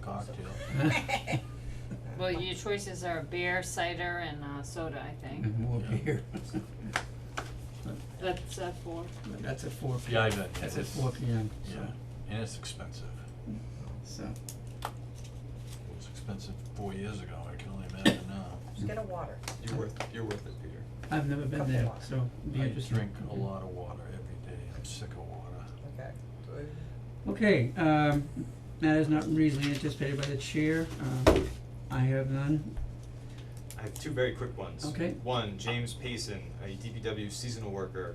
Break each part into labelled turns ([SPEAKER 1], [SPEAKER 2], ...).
[SPEAKER 1] Well, your choices are beer, cider, and uh, soda, I think.
[SPEAKER 2] And more
[SPEAKER 3] Yeah.
[SPEAKER 2] beer.
[SPEAKER 1] That's uh, four.
[SPEAKER 2] But that's at four P
[SPEAKER 3] Yeah, I
[SPEAKER 2] M.
[SPEAKER 3] bet.
[SPEAKER 2] That's at
[SPEAKER 3] It's-
[SPEAKER 2] four P M, so,
[SPEAKER 3] Yeah, and it's expensive.
[SPEAKER 2] so,
[SPEAKER 3] It was expensive four years ago, I can only imagine now.
[SPEAKER 4] Just get a water.
[SPEAKER 5] You're worth, you're worth it, Peter.
[SPEAKER 2] I've never been
[SPEAKER 4] Couple
[SPEAKER 2] there,
[SPEAKER 4] more.
[SPEAKER 2] so it'd be
[SPEAKER 3] I
[SPEAKER 2] interesting.
[SPEAKER 3] drink a
[SPEAKER 2] Okay.
[SPEAKER 3] lot of water every day, I'm sick of water.
[SPEAKER 4] Okay.
[SPEAKER 2] Okay, um, matters not reasonably anticipated by the chair, um, I have none,
[SPEAKER 5] I have two very quick ones.
[SPEAKER 2] Okay.
[SPEAKER 5] One, James Payson, a DPW seasonal worker,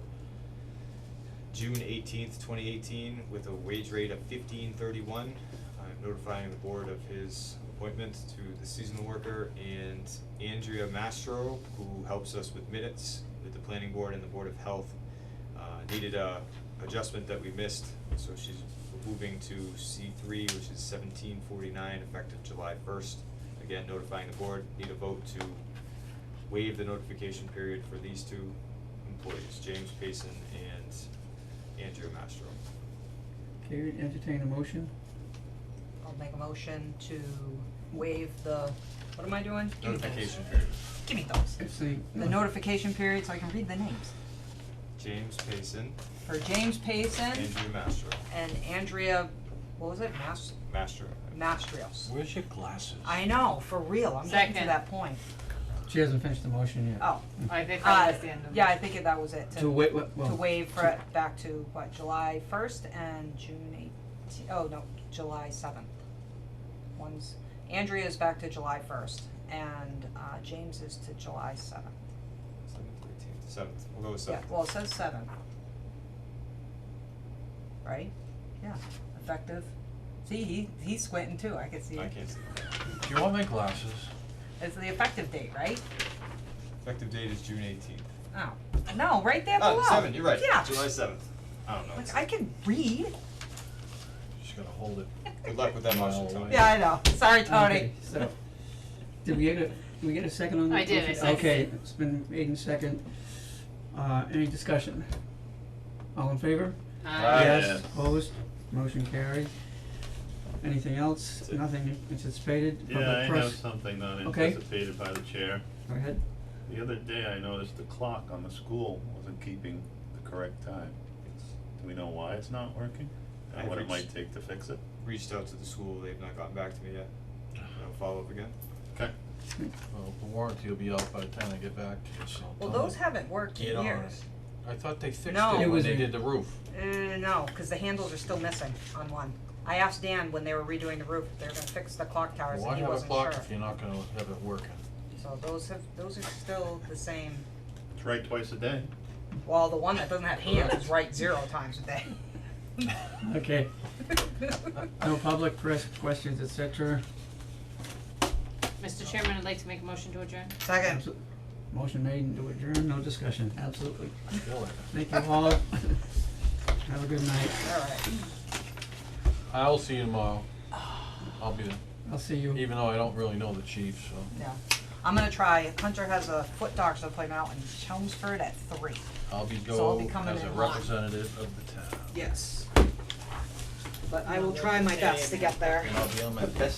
[SPEAKER 5] June eighteenth, twenty eighteen, with a wage rate of fifteen thirty-one. I'm notifying the board of his appointment to the seasonal worker and Andrea Mastro, who helps us with minutes with the planning board and the board of health, uh, needed a adjustment that we missed, so she's moving to C three, which is seventeen forty-nine, effective July first. Again, notifying the board, need a vote to waive the notification period for these two employees, James Payson and Andrew Mastro.
[SPEAKER 2] okay, entertain a motion,
[SPEAKER 4] I'll make a motion to waive the, what am I doing? Give me those.
[SPEAKER 5] Notification period,
[SPEAKER 4] Give me those.
[SPEAKER 2] if the.
[SPEAKER 4] The notification period so I can read the names.
[SPEAKER 5] James Payson,
[SPEAKER 4] For James Payson
[SPEAKER 5] Andrew Mastro,
[SPEAKER 4] and Andrea, what was it, Mas-
[SPEAKER 5] Mastro.
[SPEAKER 4] Mastrios.
[SPEAKER 3] Where's your glasses?
[SPEAKER 4] I know, for real, I'm getting to
[SPEAKER 1] Second.
[SPEAKER 4] that point.
[SPEAKER 2] She hasn't finished the motion yet.
[SPEAKER 4] Oh,
[SPEAKER 1] I think that
[SPEAKER 4] uh,
[SPEAKER 1] was the end of it.
[SPEAKER 4] yeah, I think that was it,
[SPEAKER 2] To
[SPEAKER 4] to,
[SPEAKER 2] wait, well,
[SPEAKER 4] to
[SPEAKER 2] well,
[SPEAKER 4] waive for it back to, what, July first and June eighteen, oh, no, July seventh. One's, Andrea's back to July first and, uh, James is to July seventh.
[SPEAKER 5] Seventh, eighteenth, seventh, we'll go with
[SPEAKER 4] Yeah,
[SPEAKER 5] seventh.
[SPEAKER 4] well, it says seven. Right? Yeah, effective. See, he, he's squinting too, I can see
[SPEAKER 5] I
[SPEAKER 4] it.
[SPEAKER 5] can't see that.
[SPEAKER 3] Do you want my glasses?
[SPEAKER 4] It's the effective date, right?
[SPEAKER 5] Effective date is June eighteenth.
[SPEAKER 4] Oh, no, right there below.
[SPEAKER 5] Oh, seven, you're right,
[SPEAKER 4] Yeah.
[SPEAKER 5] July seventh. I don't know.
[SPEAKER 4] Like, I can read.
[SPEAKER 3] Just gotta hold it.
[SPEAKER 5] Good luck with that motion,
[SPEAKER 3] No.
[SPEAKER 5] Tony.
[SPEAKER 4] Yeah, I know. Sorry, Tony.
[SPEAKER 2] okay, so, did we get a, did we get a second on that?
[SPEAKER 1] I did, I
[SPEAKER 2] motion?
[SPEAKER 1] seconded
[SPEAKER 2] Okay,
[SPEAKER 1] it.
[SPEAKER 2] it's been made in second, uh, any discussion? All in favor?
[SPEAKER 1] Uh,
[SPEAKER 2] Yes, opposed, motion carried. Anything else?
[SPEAKER 6] That's it.
[SPEAKER 2] Nothing anticipated?
[SPEAKER 6] Yeah, I
[SPEAKER 2] Public
[SPEAKER 6] have
[SPEAKER 2] press?
[SPEAKER 6] something not
[SPEAKER 2] Okay.
[SPEAKER 6] anticipated by the chair.
[SPEAKER 2] Go ahead.
[SPEAKER 6] The other day, I noticed the clock on the school wasn't keeping the correct time. Do we know why it's not working?
[SPEAKER 5] I've
[SPEAKER 6] And what it
[SPEAKER 5] reached-
[SPEAKER 6] might take to fix it?
[SPEAKER 5] Reached out to the school, they've not gotten back to me yet. I'll follow up again.
[SPEAKER 6] Okay,
[SPEAKER 3] Well, the warranty will be out by the time I get back to you, so.
[SPEAKER 4] Well,
[SPEAKER 3] tell
[SPEAKER 4] those
[SPEAKER 3] them
[SPEAKER 4] haven't worked
[SPEAKER 3] Get
[SPEAKER 4] in
[SPEAKER 3] on
[SPEAKER 4] years.
[SPEAKER 3] I thought they fixed
[SPEAKER 4] No.
[SPEAKER 3] it
[SPEAKER 2] It
[SPEAKER 3] when
[SPEAKER 2] was
[SPEAKER 3] they
[SPEAKER 2] in-
[SPEAKER 3] did the roof.
[SPEAKER 4] Uh, no, cause the handles are still missing on one. I asked Dan when they were redoing the roof, if they were gonna fix the clock towers
[SPEAKER 3] Why
[SPEAKER 4] and he
[SPEAKER 3] have a
[SPEAKER 4] wasn't sure.
[SPEAKER 3] clock if you're not gonna have it working?
[SPEAKER 4] So those have, those are still the same.
[SPEAKER 6] it's right twice a day.
[SPEAKER 4] Well, the one that doesn't have hands is right zero times a day.
[SPEAKER 2] Okay, no public press questions, et cetera.
[SPEAKER 1] Mr. Chairman, I'd like to make a motion to adjourn.
[SPEAKER 4] Second.
[SPEAKER 2] Absol- Motion made and to adjourn, no discussion, absolutely.
[SPEAKER 3] I feel it.
[SPEAKER 2] Thank you all. Have a good night.
[SPEAKER 4] All right.
[SPEAKER 3] I'll see you tomorrow. I'll be there,
[SPEAKER 2] I'll see you.
[SPEAKER 3] even though I don't really know the chief, so
[SPEAKER 4] Yeah. I'm gonna try. Hunter has a foot doctor's appointment out in Chelmsford at three.
[SPEAKER 3] I'll be
[SPEAKER 4] So I'll
[SPEAKER 3] go
[SPEAKER 4] be coming
[SPEAKER 3] as a
[SPEAKER 4] in live.
[SPEAKER 3] representative of the town.
[SPEAKER 4] Yes. But I will try my best to get there.
[SPEAKER 3] And I'll be on my best